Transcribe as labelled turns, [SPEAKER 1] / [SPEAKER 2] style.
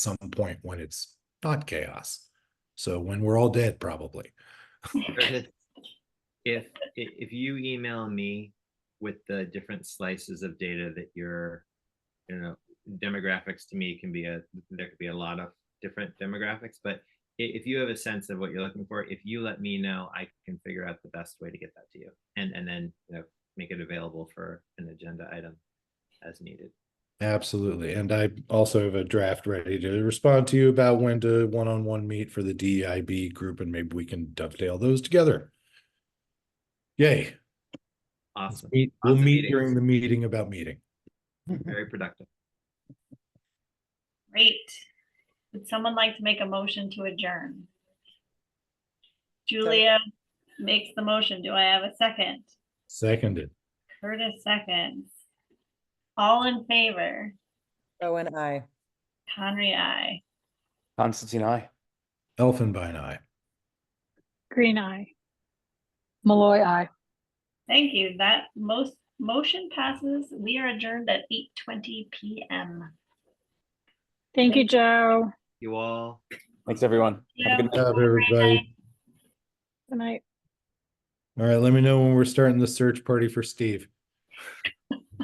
[SPEAKER 1] some point when it's not chaos. So when we're all dead, probably.
[SPEAKER 2] Curtis, If, i- if you email me with the different slices of data that you're, you know, demographics to me can be a, there could be a lot of different demographics, but i- if you have a sense of what you're looking for, if you let me know, I can figure out the best way to get that to you. And, and then, you know, make it available for an agenda item as needed.
[SPEAKER 1] Absolutely. And I also have a draft ready to respond to you about when to one-on-one meet for the DIB group and maybe we can dovetail those together. Yay. Let's
[SPEAKER 2] Awesome,
[SPEAKER 1] meet- We'll
[SPEAKER 2] Awesome
[SPEAKER 1] meet
[SPEAKER 2] meetings.
[SPEAKER 1] during the meeting about meeting.
[SPEAKER 2] very productive.
[SPEAKER 3] Great. Would someone like to make a motion to adjourn? Julia makes the motion. Do I have a second?
[SPEAKER 1] Seconded.
[SPEAKER 3] Curtis seconds. All in favor?
[SPEAKER 4] Owen, I.
[SPEAKER 3] Conry, I.
[SPEAKER 5] Constantine, I.
[SPEAKER 1] Elfenbein eye.
[SPEAKER 6] Green eye. Malloy eye.
[SPEAKER 3] Thank you. That most motion passes. We are adjourned at eight twenty PM.
[SPEAKER 6] Thank you, Joe.
[SPEAKER 2] You all.
[SPEAKER 5] Thanks, everyone. Have
[SPEAKER 3] Yeah.
[SPEAKER 5] a good night.
[SPEAKER 1] Good job, everybody.
[SPEAKER 6] Good night.
[SPEAKER 1] All right, let me know when we're starting the search party for Steve.